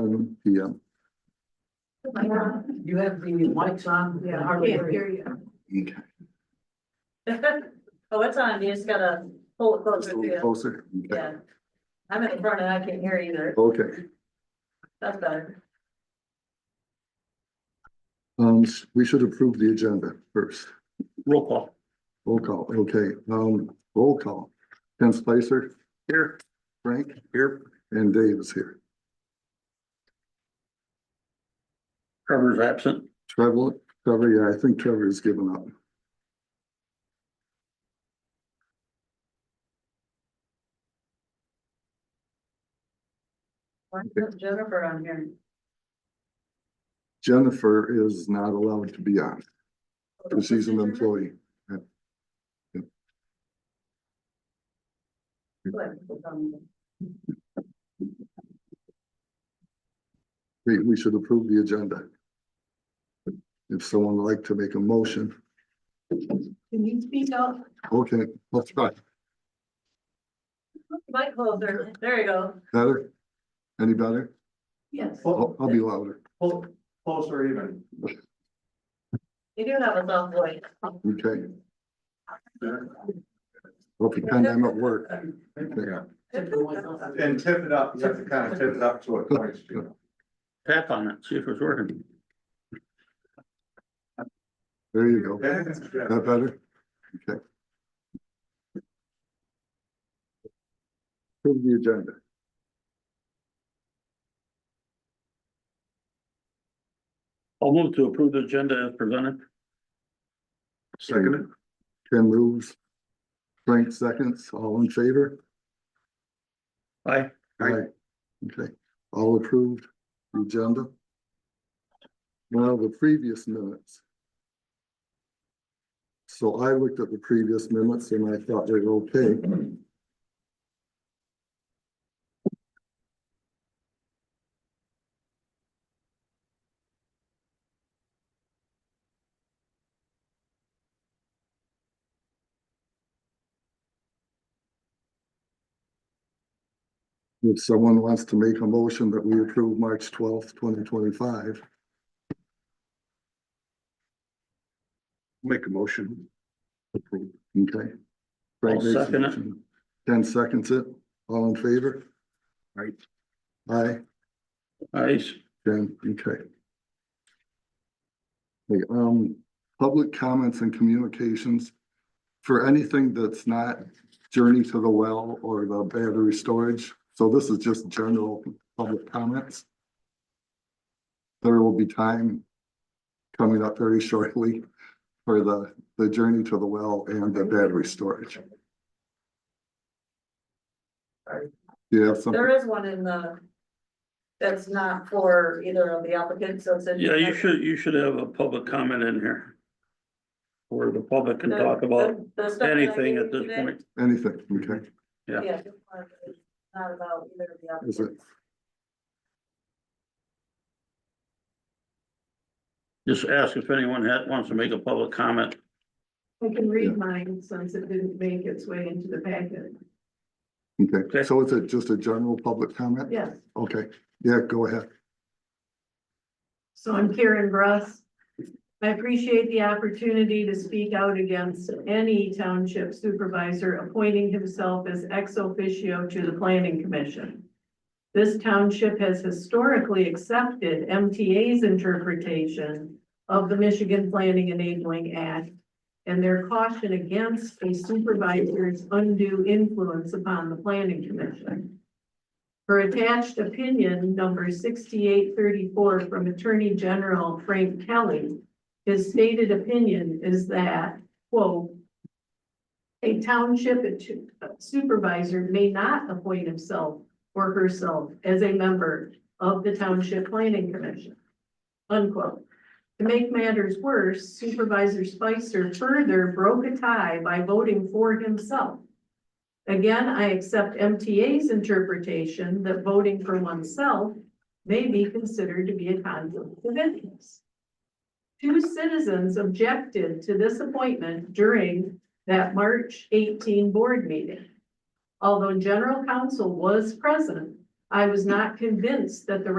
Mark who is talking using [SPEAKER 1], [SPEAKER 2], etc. [SPEAKER 1] seven PM.
[SPEAKER 2] You have the mics on?
[SPEAKER 3] Yeah, I can't hear you.
[SPEAKER 1] Okay.
[SPEAKER 3] Oh, it's on, you just gotta pull it
[SPEAKER 1] Just
[SPEAKER 3] closer
[SPEAKER 1] a
[SPEAKER 3] to
[SPEAKER 1] little
[SPEAKER 3] you,
[SPEAKER 1] closer. Okay.
[SPEAKER 3] yeah. I'm in the front and I can't hear either,
[SPEAKER 1] Okay,
[SPEAKER 3] that's better.
[SPEAKER 1] um, s- we should approve the agenda first.
[SPEAKER 4] Roll call.
[SPEAKER 1] Roll call, okay, um, roll call. Ken Spicer,
[SPEAKER 4] Here.
[SPEAKER 1] Frank,
[SPEAKER 4] Here.
[SPEAKER 1] and Dave is here.
[SPEAKER 4] Trevor's absent.
[SPEAKER 1] Trevor, Trevor, yeah, I think Trevor has given up.
[SPEAKER 3] Why isn't Jennifer on here?
[SPEAKER 1] Jennifer is not allowed to be on, because she's an employee. We, we should approve the agenda. If someone would like to make a motion,
[SPEAKER 3] Can you speak up?
[SPEAKER 1] okay, let's try.
[SPEAKER 3] Mic closer, there you go.
[SPEAKER 1] Better? Any better?
[SPEAKER 3] Yes.
[SPEAKER 1] I'll, I'll be louder.
[SPEAKER 4] Closer even.
[SPEAKER 3] You do have a soft voice.
[SPEAKER 1] Okay. Well, pretend I'm at work.
[SPEAKER 4] Yeah.
[SPEAKER 5] And tip it up, you have to kind of tip it up to a point, you know.
[SPEAKER 4] Tap on it, see if it's working.
[SPEAKER 1] There you go.
[SPEAKER 5] Yeah.
[SPEAKER 1] That better? Okay. Approve the agenda.
[SPEAKER 4] I'll move to approve the agenda as presented.
[SPEAKER 1] Second. Ken moves. Frank seconds, all in favor?
[SPEAKER 4] Aye. Aye.
[SPEAKER 1] Okay, all approved, agenda. Now, the previous minutes. So I looked at the previous minutes and I thought they were okay. If someone wants to make a motion that we approve March twelfth, twenty twenty-five,
[SPEAKER 4] Make a motion.
[SPEAKER 1] okay? Frank
[SPEAKER 4] I'll
[SPEAKER 1] makes a
[SPEAKER 4] second it.
[SPEAKER 1] motion. Ken seconds it, all in favor?
[SPEAKER 4] Aye.
[SPEAKER 1] Aye.
[SPEAKER 4] Aye.
[SPEAKER 1] Then, okay. Okay, um, public comments and communications. For anything that's not journey to the well or the battery storage, so this is just general public comments. There will be time coming up very shortly for the, the journey to the well and the battery storage. Do you have something?
[SPEAKER 3] There is one in the, that's not for either of the applicants, so it's in.
[SPEAKER 4] Yeah, you should, you should have a public comment in here. Where the public can
[SPEAKER 3] The-
[SPEAKER 4] talk about
[SPEAKER 3] the- the stuff that I
[SPEAKER 4] anything
[SPEAKER 3] gave
[SPEAKER 4] at
[SPEAKER 3] you
[SPEAKER 4] this
[SPEAKER 3] today,
[SPEAKER 4] point.
[SPEAKER 1] Anything, okay,
[SPEAKER 4] Yeah.
[SPEAKER 3] Yeah. this one is Not about either of the
[SPEAKER 1] Is it-
[SPEAKER 3] applicants.
[SPEAKER 4] Just ask if anyone had, wants to make a public comment.
[SPEAKER 3] We can
[SPEAKER 1] read
[SPEAKER 3] mine since it didn't make its way into the packet.
[SPEAKER 1] okay, so it's a, just a general public comment?
[SPEAKER 3] Yes,
[SPEAKER 1] Okay, yeah, go ahead.
[SPEAKER 3] so I'm Karen Bruss. I appreciate the opportunity to speak out against any township supervisor appointing himself as ex officio to the planning commission. This township has historically accepted MTA's interpretation of the Michigan Planning Enabling Act and their caution against a supervisor's undue influence upon the planning commission. Her attached opinion, number sixty-eight thirty-four from Attorney General Frank Kelly. His stated opinion is that, quote, a township supervisor may not appoint himself or herself as a member of the Township Planning Commission. Unquote. To make matters worse, Supervisor Spicer further broke a tie by voting for himself. Again, I accept MTA's interpretation that voting for oneself may be considered to be a conflict of interest. Two citizens objected to this appointment during that March eighteen board meeting. Although general counsel was present, I was not convinced that the